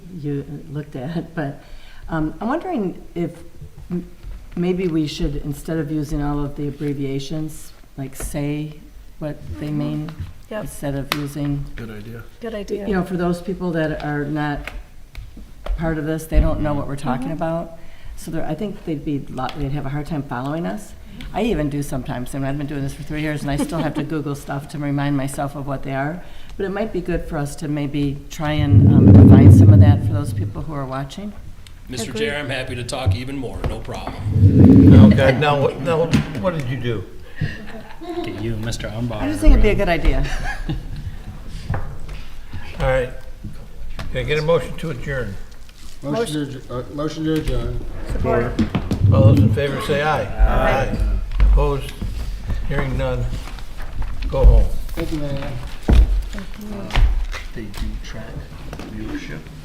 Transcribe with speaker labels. Speaker 1: you looked at, but um, I'm wondering if m- maybe we should, instead of using all of the abbreviations, like say what they mean,
Speaker 2: Yep.
Speaker 1: instead of using,
Speaker 3: Good idea.
Speaker 2: Good
Speaker 1: you
Speaker 2: idea.
Speaker 1: know, for those people that are not part of this, they don't know what we're talking
Speaker 2: Mhm.
Speaker 1: about. So there, I think they'd be, lo- they'd have a hard time following us. I even do sometimes, I mean, I've been doing this for three years, and I still have to Google stuff to remind myself of what they are. But it might be good for us to maybe try and um, find some of that for those people who are watching.
Speaker 4: Mr.
Speaker 2: Agreed.
Speaker 4: Chair, I'm happy to talk even more, no problem.
Speaker 5: Okay, now, what- now, what did you do?
Speaker 6: Get you, Mr.
Speaker 1: I just
Speaker 6: Umbauer.
Speaker 1: think it'd be a good idea.
Speaker 5: All right. Can I get a motion to adjourn?
Speaker 7: Motion to, adj- uh, motion to adjourn.
Speaker 2: Support.
Speaker 5: All those in favor say aye. Aye. Opposed? Hearing none. Go home.
Speaker 7: Thank you, Marianne.
Speaker 3: They do track viewership.